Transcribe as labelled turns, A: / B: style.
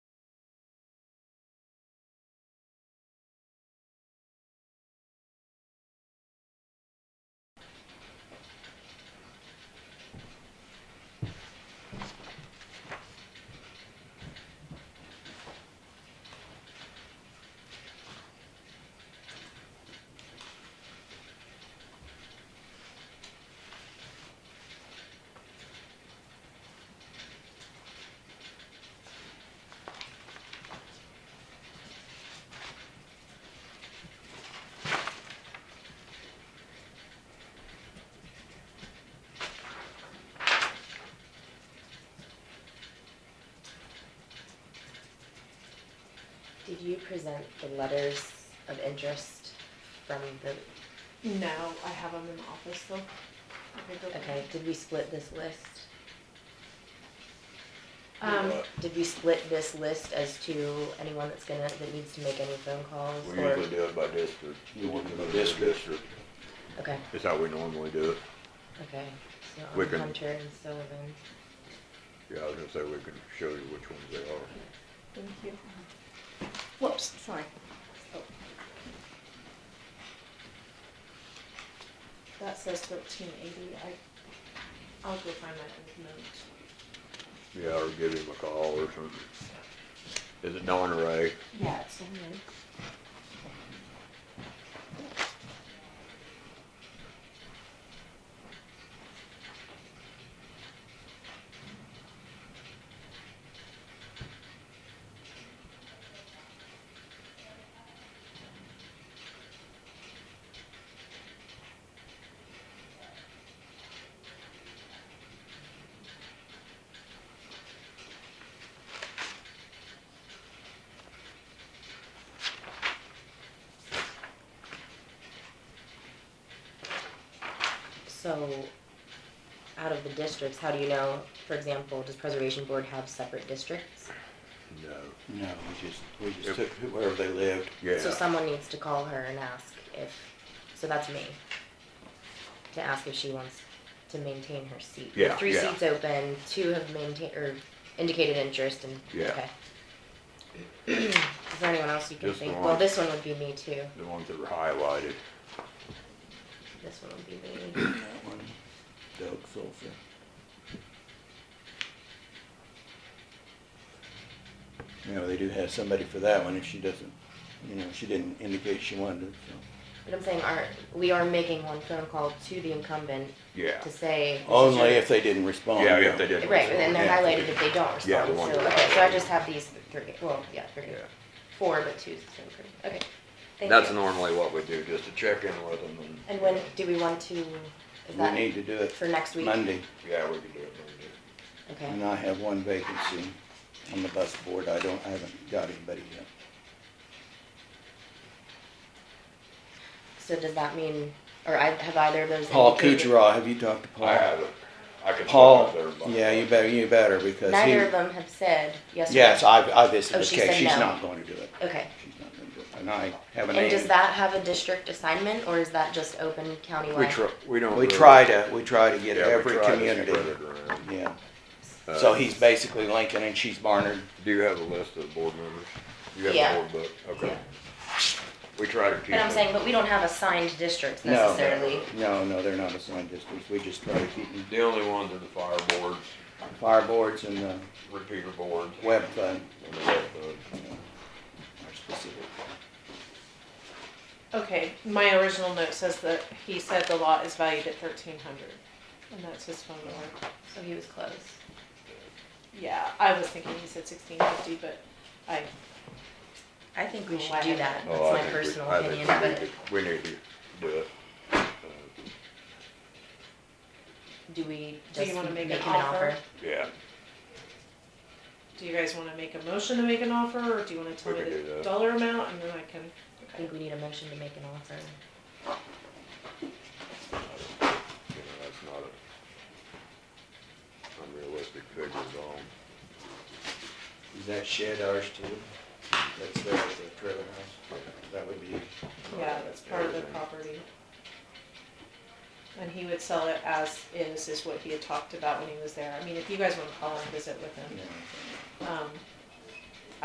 A: Did you present the letters of interest from the,
B: No, I have them in the office though. I can go get
A: okay, did we split this list?
B: them. Um,
A: Did we split this list as to anyone that's gonna, that needs to make any phone calls
C: We
A: or?
C: usually do it by district.
D: You want to go
C: By
D: district?
C: District,
A: Okay,
C: is how we normally do it.
A: okay, so
C: We
A: on
C: can-
A: Hunter and Sullivan,
C: Yeah, I was gonna say we can show you which ones they are.
B: thank you. Whoops, sorry. Oh. That says thirteen eighty, I, I'll go find my old note.
C: Yeah, or give him a call or something. Is it Don or Ray?
B: Yeah, it's in
A: so out of the districts, how do you know, for example, does preservation board have separate districts?
C: No.
D: No, we just, we
C: Yep.
D: just took wherever they lived.
A: So
C: Yeah,
A: someone needs to call her and ask if, so that's me, to ask if she wants to maintain her seat.
C: Yeah,
A: Three
C: yeah.
A: seats open, two have maintained, or indicated interest and,
C: Yeah.
A: okay. Is there anyone else you can
C: Just the
A: think? Well,
C: one.
A: this one would be me too.
C: the ones that were highlighted.
A: This one would be me.
D: That one, Doug Sulfur. You know, they do have somebody for that one if she doesn't, you know, she didn't indicate she wanted, so.
A: But I'm saying, are, we are making one phone call to the incumbent
C: Yeah,
A: to say. this is
D: Only
A: your-
D: if they didn't respond.
C: Yeah, if they didn't.
A: Right, and then they're
C: Yeah.
A: highlighted if they don't
C: Yeah, the
A: respond,
C: ones
A: so,
C: that are
A: okay, so I
C: highlighted.
A: just have these three, well, yeah, three,
C: yeah.
A: four, but two's the same person, okay. Thank
C: That's
A: you.
C: normally what we do, just to check in with them and.
A: And when, do we want to, is
D: We
A: that
D: need to do it
A: for next week?
D: Monday,
C: Yeah, we can do it Monday.
A: Okay,
D: and I have one vacancy on the bus board. I don't, I haven't got anybody yet.
A: so does that mean, or I, have either of those
D: Paul
A: indicated-
D: Kucherov, have you talked to Paul?
C: I have it. I can.
D: Paul,
C: stop there by-
D: yeah, you better, you better, because he.
A: Neither of them have said yes or no?
D: Yes, I, I visited
A: Oh,
D: the
A: she
D: case,
A: said
D: she's
A: no.
D: not going to do it,
A: Okay,
D: she's not going to do it, and I have an
A: and does
D: aide.
A: that have a district assignment, or is that just open
C: We
A: countywide?
C: try, we don't.
D: We
C: really-
D: try to, we try to get
C: Yeah, we
D: every
C: try to
D: community,
C: spread it around.
D: yeah,
C: Uh,
D: so he's basically Lincoln and she's Barnard,
C: Do you have a list of board members? You have
A: Yeah.
C: a board book, okay.
A: Yeah.
C: We try to keep.
A: But I'm
C: it-
A: saying, but we don't have assigned districts
D: No.
A: necessarily.
D: no, no, they're not assigned districts, we just try to keep them,
C: The only ones are the fire boards,
D: fire boards and the
C: repeater boards.
D: web fund
C: and the rest of it.
D: are specific.
B: Okay, my original note says that he said the lot is valued at thirteen hundred, and that's his phone number.
A: So he was close.
B: Yeah, I was thinking he said sixteen fifty, but I,
A: I think we should
B: Why
A: do
B: not?
A: that, that's
C: Oh, I
A: my
C: think we-
A: personal
C: I think
A: opinion,
C: we
A: but
C: need to- We need to do it. Uh,
A: do we
B: Do you
A: just
B: wanna
A: make
B: make
A: him an
B: an offer?
A: offer?
C: Yeah,
B: do you guys wanna make a motion to make an offer, or do you wanna tell
C: We
B: me
C: can do
B: the
C: that.
B: dollar amount, and then I can?
A: I think we need a motion to make an offer.
C: you know, that's not a unrealistic figure at all.
D: Is that shed ours too? That's there with the trailer house, that would be,
B: Yeah, that's part of the
C: Everything.
B: property. And he would sell it as is, is what he had talked about when he was there. I mean, if you guys wanna call and visit with
D: you
B: him,
D: know,
B: um,